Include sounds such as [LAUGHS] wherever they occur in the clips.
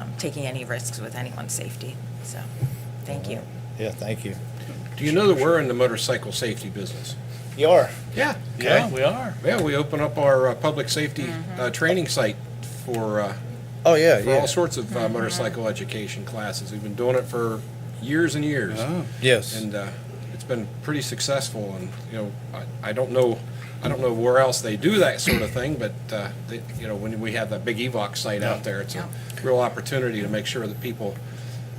um, taking any risks with anyone's safety. So, thank you. Yeah, thank you. Do you know that we're in the motorcycle safety business? You are. Yeah. Okay. Yeah, we are. Yeah, we open up our uh, public safety uh, training site for, uh, Oh, yeah, for all yeah. sorts of uh, motorcycle education classes. We've been doing it for years and years. Oh. Yes. And uh, it's been pretty successful and, you know, I- I don't know, I don't know where else they do that sort of thing, but, uh, they- you know, when we have that big EVOC site out there, it's a real opportunity to make sure that people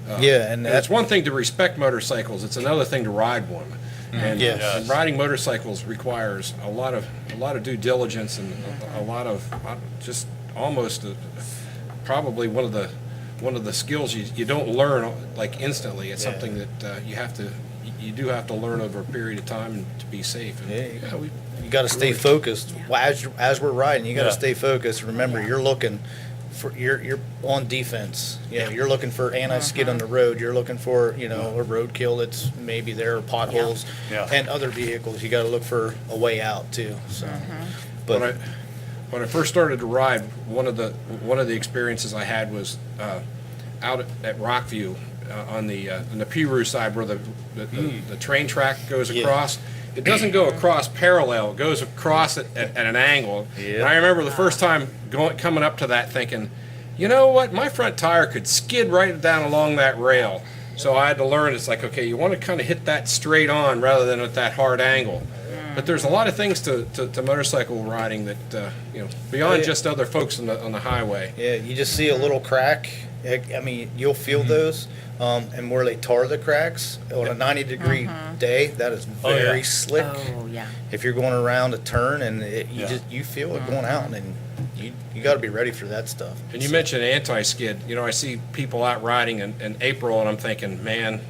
Yeah, and and it's that's, one thing to respect motorcycles; it's another thing to ride one. And, Mm-hmm. Yes. and riding motorcycles requires a lot of a lot of due diligence and a, a lot of uh, just almost a, probably one of the one of the skills you, you don't learn like instantly. It's Yeah. something that uh, you have to you- you do have to learn over a period of time and to be safe. And, Yeah, you- we, you gotta stay focused. Well, As, you- as we're riding, you gotta Yeah. stay focused. Remember, you're looking for, you're, you're on defense. You know, you're looking for anti-skid on the road. You're looking for, you know, a roadkill that's maybe there, or potholes. Yeah. And other vehicles. You gotta look for a way out too, so. when I But, when I first started to ride, one of the one of the experiences I had was uh, out at, at Rockview uh, on the uh, on the Piru side where the the, the, the train track goes Hmm. Yeah. across. It doesn't go across parallel; it goes across at, at, at an angle. And I remember the first time going coming up to that, thinking, you know what, my front tire could skid right down along that rail. So I had to learn. It's like okay, you want to kind of hit that straight on rather than at that hard angle. But there's a lot of things to, to, to motorcycle riding that uh, you know beyond Yeah. just other folks on the on the highway. yeah, you just see a little crack. I I mean, you'll Mm-hmm. feel those. Um, and where they tar the cracks on a ninety-degree Mm-hmm. day, that is Oh, yeah. very slick. Oh, yeah. if you're going around a turn and it, you Yeah. just you feel it going out and you you got to be ready for that stuff. Mm-hmm. And you mentioned anti-skid. You know, I see people out riding in, in April, and I'm thinking, man,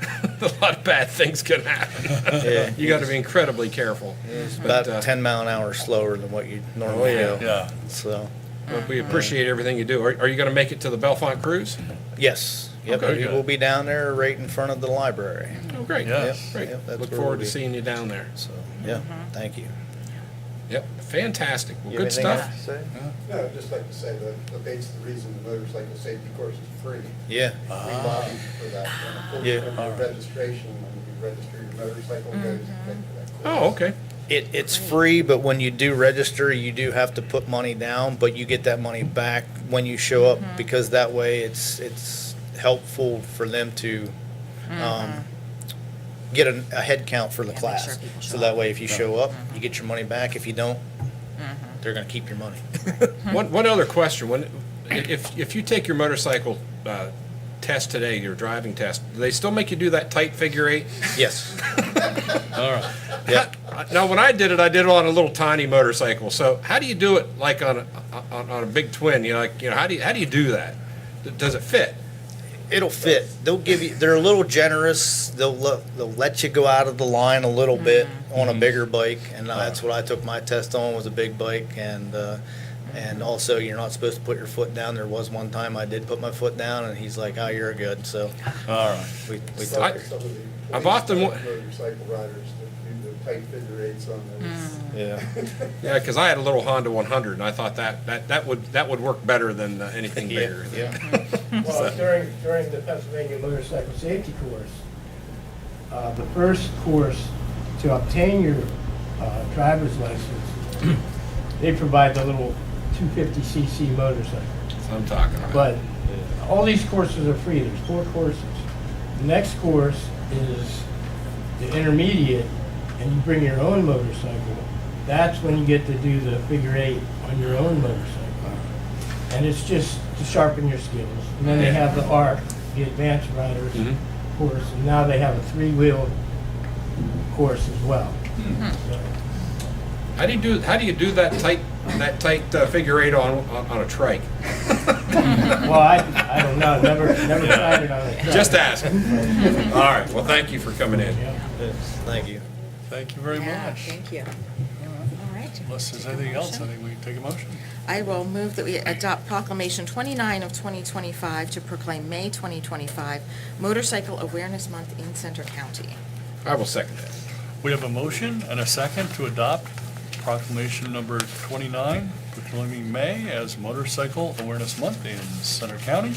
[LAUGHS] a lot of bad things can happen. Yeah. you got to be incredibly careful. It's But, about uh, Oh, 10 mile an hour slower than what you normally yeah. go. Yeah. So, But we appreciate everything you do. Are, are you going to make it to the Belfont Cruise? yes. Yep. Okay, we good. will be down there right in front of the library. Oh, great. Yeah. Yep, Great. yep, that's Look where forward we'll to be. seeing you down there. So, yeah. Thank you. Yep. Fantastic. Well, You Mm-hmm. good have anything stuff. else to say? No, I'd just like to say that debates the reason the motorcycle safety course is free. Yeah. We lobbied for that. And of course, Yeah. when your registration, when you register your motorcycle, it goes to pay for that course. Oh, okay. It, it's free, but when you do register, you do have to put money down, but you get that money back when you show up Mm-hmm. because that way it's it's helpful for them to um, get a, a head count for the Mm-hmm. Yeah, make sure class. people So show that up. Mm-hmm. way, if you show up, you get your money back. If you don't, they're going to keep [LAUGHS] your money. Hmm. One, one other question, when, if, if you take your motorcycle, uh, test today, your driving test, do they still make you do that tight figure eight? Yes. All right. Yeah. Now, when I did it, I did it on a little tiny motorcycle, so how do you do it like on a, on, on a big twin, you know, like, you know, how do you, how do you do that? Does it fit? it'll fit. They'll give you. They're a little generous. They'll le, they'll let you go out of the line a little bit on a bigger bike, and that's what I took my test on was a big bike, and uh, and also you're not supposed to put your foot down. There was one time I did put my foot down, and he's like, "Oh, you're good." So All right. we we It's took like it. some of the I've police often wa- Motorcycle riders that do the tight figure eights on those. Yeah. Yeah, cause I had a little Honda one hundred, and I thought that, that, that would, that would work better than uh, anything Yeah. bigger. Yeah. Well, during, during the Pennsylvania Motorcycle Safety Course, uh, the first course to obtain your uh, driver's license, they provide the little 250cc motorcycle. That's what I'm talking about. But all these courses are free, there's four courses. The next course is the intermediate, and you bring your own motorcycle. That's when you get to do the figure eight on your own motorcycle. And it's just to sharpen your skills. And then they have the ARC, the Advanced Riders Mhm. course, and now they have a three-wheel course as well. So, How do you do, how do you do that tight, that tight uh, figure eight on, on on a trike? Well, I, I don't know, never, never tried it on a truck. Just ask. All [LAUGHS] right, well, thank you for coming in. Yeah. Thank you. Thank you very Yeah, much. thank you. All right. Unless there's Take a anything else, I motion. think we can take a motion. I will move that we adopt proclamation 29 of 2025 to proclaim May 2025 Motorcycle Awareness Month in Center County. I will second that. We have a motion and a second to adopt proclamation number 29, proclaiming May as Motorcycle Awareness Month in Center County.